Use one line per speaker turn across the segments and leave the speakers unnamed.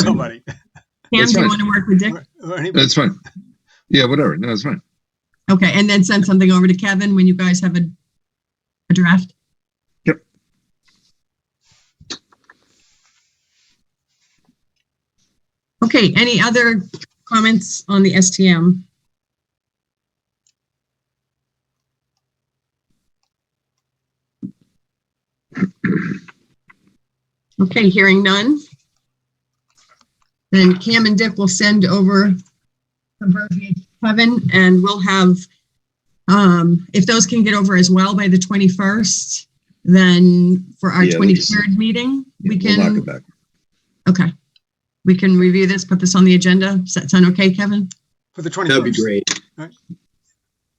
somebody.
Pam,
That's
do you
fine.
want to work with Dick?
Or- or
Uh,
anybody.
That's fine. Yeah, whatever. No, it's fine.
Okay, and then send something over to Kevin when you guys have a, a draft?
Yep.
Okay, any other comments on the STM? Okay, hearing none. Then Cam and Dick will send over the verbiage Kevin, and we'll have, um, if those can get over as well by the 21st, then for our
Yeah, we just-
23rd meeting, we
We'll knock
can,
it back.
okay. We can review this, put this on the agenda. Does that sound okay, Kevin?
For the
That'd be
21st.
great.
Uh,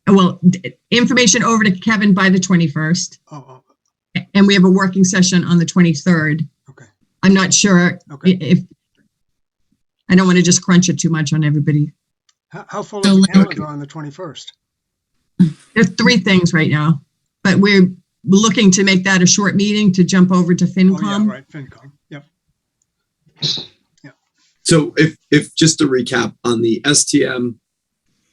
Well, d- information over to Kevin by the 21st,
Oh, oh,
and we have a working session on the 23rd.
Okay.
I'm not sure
oh, okay.
i- if, I don't want to just crunch it too much on everybody.
How, how full
So
is the
like-
calendar on the 21st?
There's three things right now, but we're looking to make that a short meeting to jump over to
Oh, yeah,
FinCom.
right, FinCom. Yep.
So if, if, just to recap on the STM,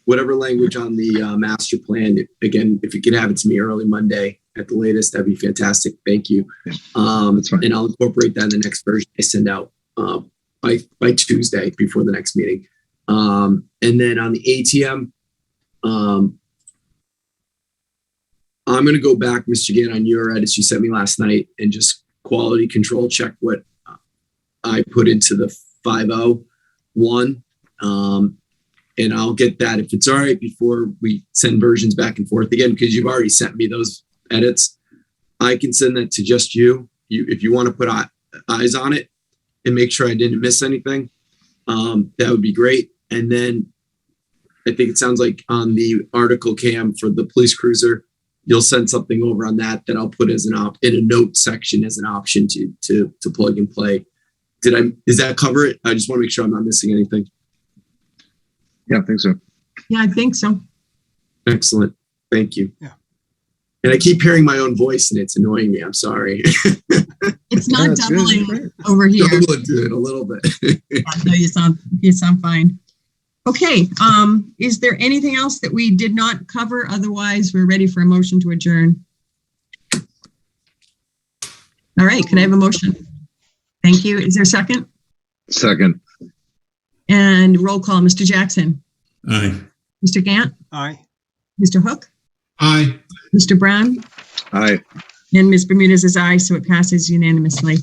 whatever language on the uh, master plan, again, if you could have it to me early Monday at the latest, that'd be fantastic. Thank you.
Yeah,
Um,
that's fine.
and I'll incorporate that in the next version I send out, uh, by, by Tuesday before the next meeting. Um, and then on the ATM, um, I'm gonna go back, Mr. Gann, on your edits you sent me last night and just quality control check what I put into the five oh one. Um, and I'll get that if it's all right before we send versions back and forth again, because you've already sent me those edits. I can send that to just you. You, if you want to put eye- eyes on it and make sure I didn't miss anything, um, that would be great. And then I think it sounds like on the article cam for the police cruiser, you'll send something over on that that I'll put as an op in a note section as an option to to to plug and play did I, does that cover it? I just want to make sure I'm not missing anything.
Yeah, I think so.
Yeah, I think so.
Excellent. Thank you.
Yeah.
And I keep hearing my own voice and it's annoying me. I'm sorry.
It's
Yeah,
not
it's really
doubling
great.
over here.
Double it a little bit.
No, you sound, you sound fine. Okay, um, is there anything else that we did not cover? Otherwise, we're ready for a motion to adjourn. All right, can I have a motion? Thank you. Is there a second?
Second.
And roll call, Mr. Jackson,
Aye.
Mr. Gant,
Aye.
Mr. Hook,
Aye.
Mr. Brown,
Aye.
and Ms. Bermudez is aye, so it passes unanimously.